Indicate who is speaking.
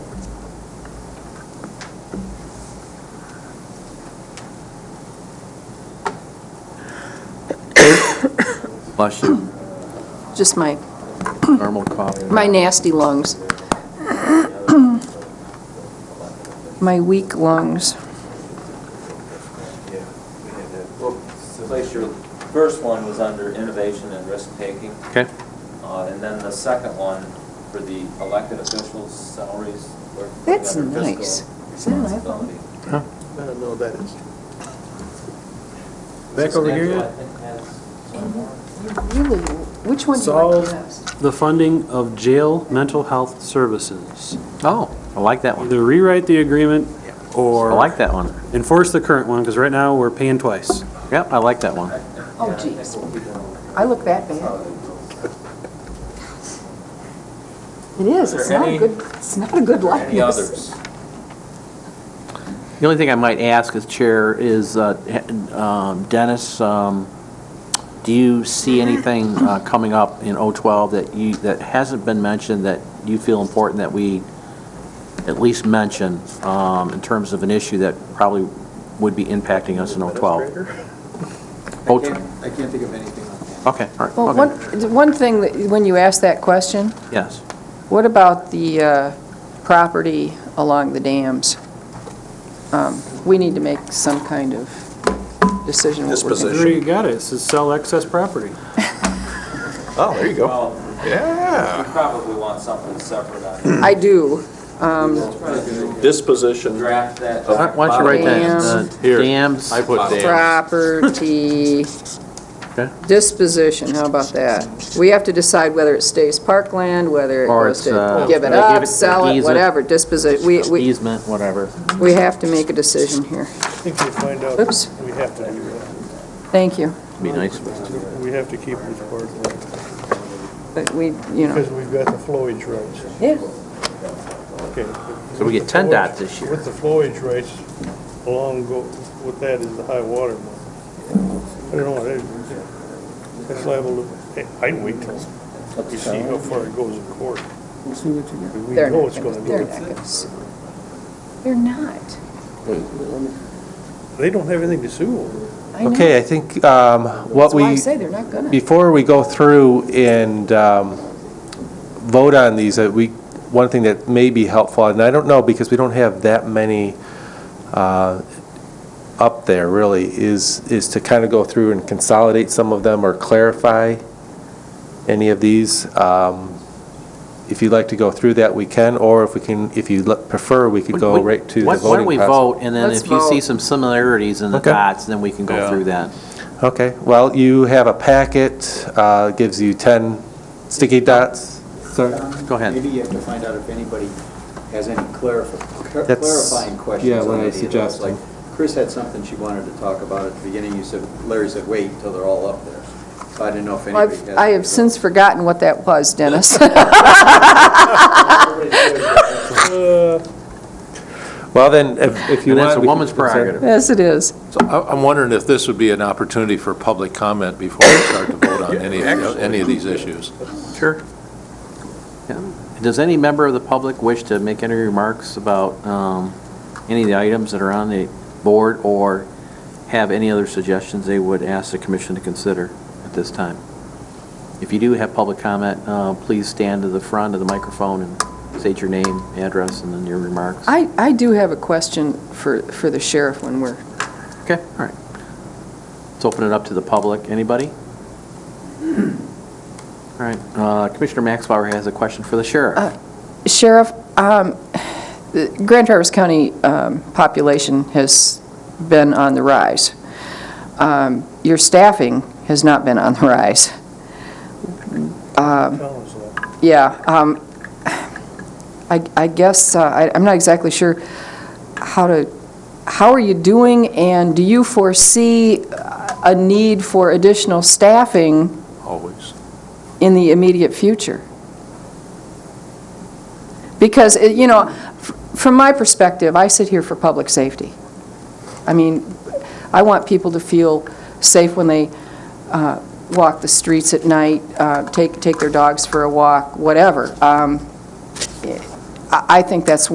Speaker 1: Bless you.
Speaker 2: Just my,
Speaker 1: Normal cough.
Speaker 2: my nasty lungs. My weak lungs.
Speaker 3: Yeah, we had that. Well, Suffice your first one was under innovation and risk-taking,
Speaker 1: Okay.
Speaker 3: uh, and then the second one for the elected officials' salaries. were
Speaker 2: That's
Speaker 3: under fiscal
Speaker 2: nice. Is that an iPhone?
Speaker 3: responsibility.
Speaker 4: I
Speaker 1: Huh?
Speaker 4: don't know what that is.
Speaker 5: Back over here
Speaker 3: Angela, I
Speaker 5: yet?
Speaker 3: think, has some more.
Speaker 2: Really, which one do you like the
Speaker 5: Solve.
Speaker 2: best?
Speaker 5: The funding of jail mental health services.
Speaker 1: Oh, I like that one.
Speaker 5: Either rewrite the agreement
Speaker 1: I
Speaker 5: or.
Speaker 1: like that one.
Speaker 5: Enforce the current one, because right now we're paying twice.
Speaker 1: Yep, I like that one.
Speaker 2: Oh,
Speaker 3: Yeah, I think
Speaker 2: geez.
Speaker 3: we'll keep it on.
Speaker 2: I look that bad. It is,
Speaker 3: Are
Speaker 2: it's
Speaker 3: there
Speaker 2: not a
Speaker 3: any-
Speaker 2: good, it's not a good likeness.
Speaker 3: Any others?
Speaker 1: The only thing I might ask as chair is, uh, he- um, Dennis, um, do you see anything uh, coming up in O12 that you, that hasn't been mentioned that you feel important that we at least mention um, in terms of an issue that probably would be impacting us in
Speaker 6: I
Speaker 1: O12?
Speaker 6: can't, I can't think of anything on that.
Speaker 1: Okay, all right,
Speaker 2: Well,
Speaker 1: okay.
Speaker 2: one, one thing, that when you asked that question,
Speaker 1: Yes.
Speaker 2: what about the uh, property along the dams? Um, We need to make some kind of decision what we're
Speaker 5: There
Speaker 2: going to do.
Speaker 5: you got it, it says sell excess property.
Speaker 4: Oh, there you go.
Speaker 3: Well, we
Speaker 7: Ah.
Speaker 4: Yeah.
Speaker 3: probably want something separate on
Speaker 2: I do. Um,
Speaker 3: it.
Speaker 4: Disposition.
Speaker 3: Draft that.
Speaker 1: Why don't you write that, uh,
Speaker 4: Here.
Speaker 1: dams,
Speaker 4: I put Dan.
Speaker 2: Property
Speaker 1: Okay.
Speaker 2: disposition, how about that? We have to decide whether it stays parkland, whether it
Speaker 1: Or
Speaker 2: goes
Speaker 1: it's,
Speaker 2: to
Speaker 1: uh,
Speaker 2: give it
Speaker 1: they give
Speaker 2: up,
Speaker 1: it-
Speaker 2: sell it,
Speaker 1: easement.
Speaker 2: whatever, disposition. We, we,
Speaker 1: easement, whatever.
Speaker 2: we have to make a decision here.
Speaker 8: I think we find out,
Speaker 2: Oops.
Speaker 8: we have to do that.
Speaker 2: Thank you,
Speaker 1: Be nice.
Speaker 8: We have to keep record,
Speaker 2: but we, you know,
Speaker 8: because we've got the flowage rights,
Speaker 2: yeah.
Speaker 8: okay.
Speaker 1: So we get 10 dots this year.
Speaker 8: With the flowage rights, along go, with that is the high water mark. I don't know, that- that's liable to, hey, I'd wait till you see how far it goes in court.
Speaker 6: We'll see what you
Speaker 8: We
Speaker 2: They're
Speaker 8: know
Speaker 2: not
Speaker 8: it's
Speaker 2: gonna,
Speaker 8: gonna
Speaker 2: they're
Speaker 8: do
Speaker 2: not
Speaker 8: it.
Speaker 2: gonna. s- They're not.
Speaker 8: They don't have anything to sue over.
Speaker 2: I know.
Speaker 9: Okay, I think um, what
Speaker 2: That's why I
Speaker 9: we,
Speaker 2: say they're not gonna.
Speaker 9: before we go through and um, vote on these, uh, we, one thing that may be helpful, and I don't know, because we don't have that many uh, up there really, is, is to kind of go through and consolidate some of them or clarify any of these. Um, If you'd like to go through that, we can, or if we can, if you prefer, we could go right to the
Speaker 1: Why
Speaker 9: voting process.
Speaker 1: why don't we vote, and then
Speaker 2: Let's
Speaker 1: if you see
Speaker 2: vote.
Speaker 1: some similarities in the
Speaker 9: Okay.
Speaker 1: dots, then we can go through that.
Speaker 9: Okay, well, you have a packet, uh, gives you 10 sticky dots. Sir?
Speaker 1: Go ahead.
Speaker 6: Maybe you have to find out if anybody has any clarif- clar-
Speaker 9: That's-
Speaker 6: clarifying questions
Speaker 9: yeah, what
Speaker 6: on
Speaker 9: I
Speaker 6: any of those.
Speaker 9: suggested.
Speaker 6: Like, Chris had something she wanted to talk about at the beginning, you said, Larry said, wait until they're all up there. So I didn't know if anybody
Speaker 2: I've,
Speaker 6: has.
Speaker 2: I have since forgotten what that was, Dennis.
Speaker 6: Uh,
Speaker 9: Well, then, if if you
Speaker 1: And
Speaker 9: want...
Speaker 1: that's a
Speaker 9: we can
Speaker 1: woman's
Speaker 9: consider-
Speaker 1: prerogative.
Speaker 2: Yes, it is.
Speaker 7: So I- I'm wondering if this would be an opportunity for public comment before we start to vote on any, of any of these issues.
Speaker 1: Sure. Does any member of the public wish to make any remarks about um, any of the items that are on the board, or have any other suggestions they would ask the commission to consider at this time? If you do have public comment, uh, please stand to the front of the microphone and state your name, address, and then your remarks.
Speaker 2: I, I do have a question for, for the sheriff when we're,
Speaker 1: Okay, all right. Let's open it up to the public. Anybody? All right, uh, Commissioner Maxbauer has a question for the sheriff.
Speaker 2: Sheriff, um, the Grand Traverse County um, population has been on the rise. Um, Your staffing has not been on the rise.
Speaker 8: Tell us that.
Speaker 2: Yeah, um, I I guess, uh, I- I'm not exactly sure how to, how are you doing, and do you foresee a need for additional staffing
Speaker 7: Always.
Speaker 2: in the immediate future? Because, it- you know, f- from my perspective, I sit here for public safety. I mean, I want people to feel safe when they uh, walk the streets at night, uh, take take their dogs for a walk, whatever. Um, I I think that's